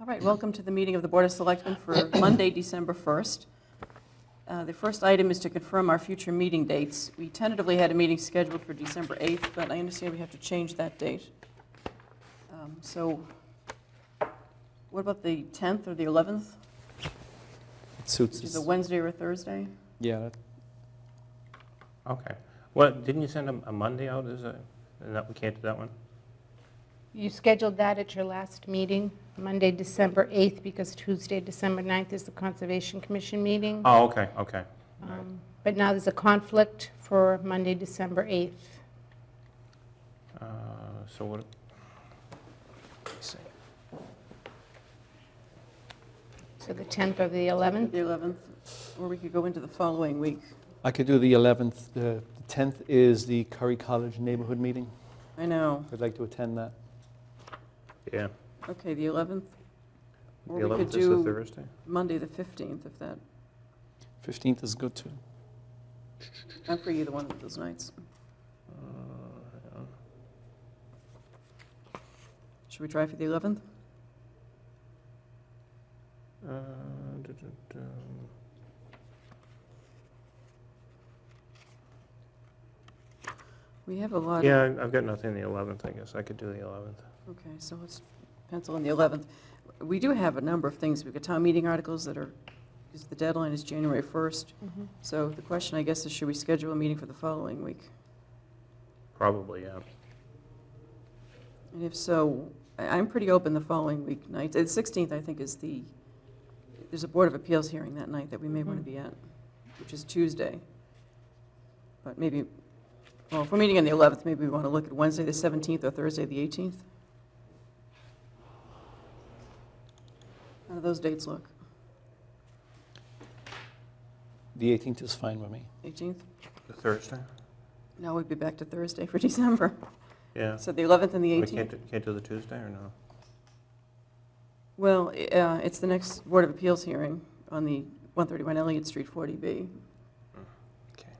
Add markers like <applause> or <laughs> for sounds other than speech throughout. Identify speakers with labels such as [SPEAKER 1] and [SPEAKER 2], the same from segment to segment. [SPEAKER 1] All right, welcome to the meeting of the Board of Selectmen for
[SPEAKER 2] <coughs>
[SPEAKER 1] Monday, December 1st. Uh, The first item is to confirm our future meeting dates. We tentatively had a meeting scheduled for December 8th, but I understand we have to change that date. Um, So what about the 10th or the 11th,
[SPEAKER 3] It suits
[SPEAKER 1] which is a
[SPEAKER 3] us.
[SPEAKER 1] Wednesday or a Thursday?
[SPEAKER 3] Yeah, that-
[SPEAKER 2] Okay. Well, didn't you send a a Monday out as a, and that, we can't do that one?
[SPEAKER 4] You scheduled that at your last meeting, Monday, December 8th, because Tuesday, December 9th is the Conservation Commission meeting.
[SPEAKER 2] Oh, okay, okay. all right.
[SPEAKER 4] Um, But now there's a conflict for Monday, December 8th.
[SPEAKER 2] Uh, So what,
[SPEAKER 4] So the 10th or the 11th,
[SPEAKER 1] The 11th, or we could go into the following week.
[SPEAKER 3] I could do the 11th. The the 10th is the Curry College Neighborhood Meeting.
[SPEAKER 1] I know.
[SPEAKER 3] I'd like to attend that.
[SPEAKER 2] yeah.
[SPEAKER 1] Okay, the 11th,
[SPEAKER 2] The
[SPEAKER 1] Or we could
[SPEAKER 2] 11th is
[SPEAKER 1] do-
[SPEAKER 2] the Thursday?
[SPEAKER 1] Monday, the 15th, if that,
[SPEAKER 3] 15th is good, too.
[SPEAKER 1] I'm free either one of those nights.
[SPEAKER 2] Uh, hang on.
[SPEAKER 1] Should we try for the 11th?
[SPEAKER 2] Uh, duh, duh, duh.
[SPEAKER 1] We have a lot of...
[SPEAKER 2] Yeah, I- I've got nothing the 11th, I guess. I could do the 11th.
[SPEAKER 1] Okay, so let's pencil in the 11th. We do have a number of things. We've got town meeting articles that are, because the deadline is January 1st.
[SPEAKER 4] Mhm.
[SPEAKER 1] So the question, I guess, is should we schedule a meeting for the following week?
[SPEAKER 2] Probably, yeah.
[SPEAKER 1] And if so, I- I'm pretty open the following week night. The 16th, I think, is the, there's a Board of Appeals hearing that night that we may want to
[SPEAKER 2] Mm-hmm.
[SPEAKER 4] Mhm.
[SPEAKER 1] be at, which is Tuesday. But maybe, well, if we're meeting on the 11th, maybe we want to look at Wednesday, the 17th, or Thursday, the 18th. How do those dates look?
[SPEAKER 3] The 18th is fine with me.
[SPEAKER 1] 18th?
[SPEAKER 2] The Thursday?
[SPEAKER 1] No, we'd be back to Thursday for <laughs> December.
[SPEAKER 2] Yeah.
[SPEAKER 1] So the 11th and the
[SPEAKER 2] We
[SPEAKER 1] 18th?
[SPEAKER 2] can't, do- can't do the Tuesday, or no?
[SPEAKER 1] Well, i- uh, it's the next Board of Appeals hearing on the 131 Elliott Street 40B.
[SPEAKER 2] Okay.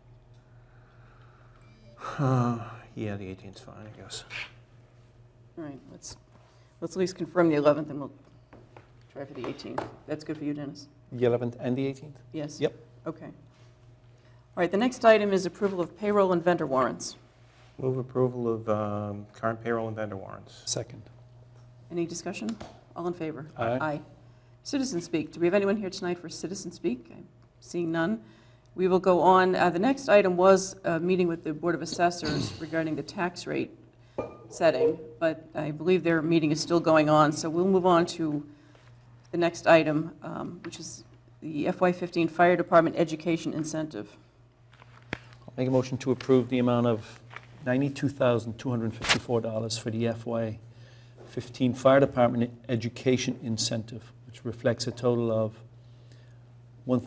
[SPEAKER 2] Uh, Yeah, the 18th's fine, I guess.
[SPEAKER 1] All right, let's, let's at least confirm the 11th, and we'll try for the 18th. That's good for you, Dennis?
[SPEAKER 3] The 11th and the 18th?
[SPEAKER 1] Yes?
[SPEAKER 3] Yep.
[SPEAKER 1] Okay. All right, the next item is approval of payroll and vendor warrants.
[SPEAKER 2] Move approval of um, current payroll and vendor warrants.
[SPEAKER 3] Second.
[SPEAKER 1] Any discussion? All in favor?
[SPEAKER 3] Aye.
[SPEAKER 1] Aye. Citizen Speak. Do we have anyone here tonight for Citizen Speak? I'm Seeing none. We will go on. Uh, The next item was a meeting with the Board of Assessors regarding the tax rate setting, but I believe their meeting is still going on, so we'll move on to the next item, um, which is the FY15 Fire Department Education Incentive.
[SPEAKER 3] I'll Make a motion to approve the amount of $92,254 for the FY15 Fire Department Education Incentive, which reflects a total of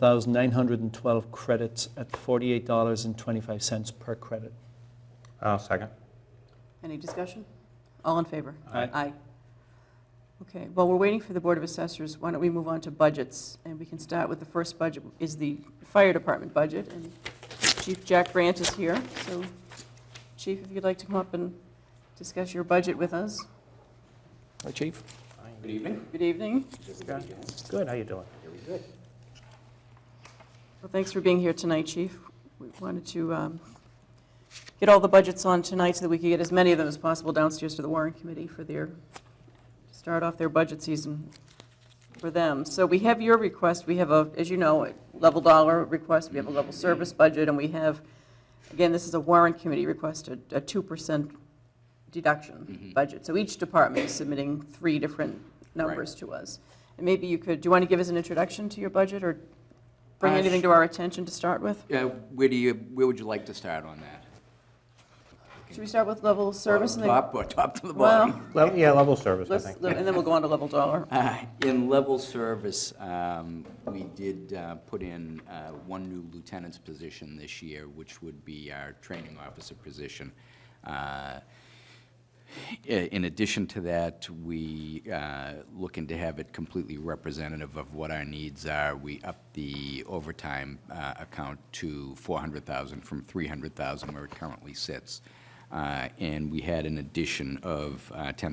[SPEAKER 3] 1,912 credits at $48.25 per credit.
[SPEAKER 2] I'll Uh, second.
[SPEAKER 1] Any discussion? All in favor?
[SPEAKER 3] Aye.
[SPEAKER 1] Aye. Okay, while we're waiting for the Board of Assessors, why don't we move on to budgets? And we can start with the first budget, is the fire department budget, and Chief Jack Brandt is here. So, Chief, if you'd like to come up and discuss your budget with us.
[SPEAKER 3] Hi, Chief.
[SPEAKER 5] Good evening.
[SPEAKER 1] Good evening.
[SPEAKER 2] Good, how you doing?
[SPEAKER 5] Very good.
[SPEAKER 1] Well, thanks for being here tonight, Chief. We wanted to um, get all the budgets on tonight so that we could get as many of them as possible downstairs to the Warren Committee for their, to start off their budget season for them. So we have your request, we have a, as you know, a level dollar request, we have a level service budget, and we have, again, this is a Warren Committee request, a a 2% deduction budget. So each department is submitting three different numbers to us. And maybe you could, do you want to give us an introduction to your budget, or bring
[SPEAKER 5] Uh,
[SPEAKER 1] anything
[SPEAKER 5] sh-
[SPEAKER 1] to our attention to start with?
[SPEAKER 5] Uh, Where do you, where would you like to start on that?
[SPEAKER 1] Should we start with level of service? and then-
[SPEAKER 5] Top or top to the
[SPEAKER 1] Well,
[SPEAKER 5] bottom?
[SPEAKER 2] Level- Yeah, level service, I
[SPEAKER 1] let's,
[SPEAKER 2] think.
[SPEAKER 1] and then we'll go on to level dollar.
[SPEAKER 5] Uh, In level service, um, we did uh, put in uh, one new lieutenant's position this year, which would be our training officer position. Uh, i- In addition to that, we uh, looking to have it completely representative of what our needs are. We upped the overtime uh, account to 400,000 from 300,000 where it currently sits. Uh, And we had an addition of uh, 10,000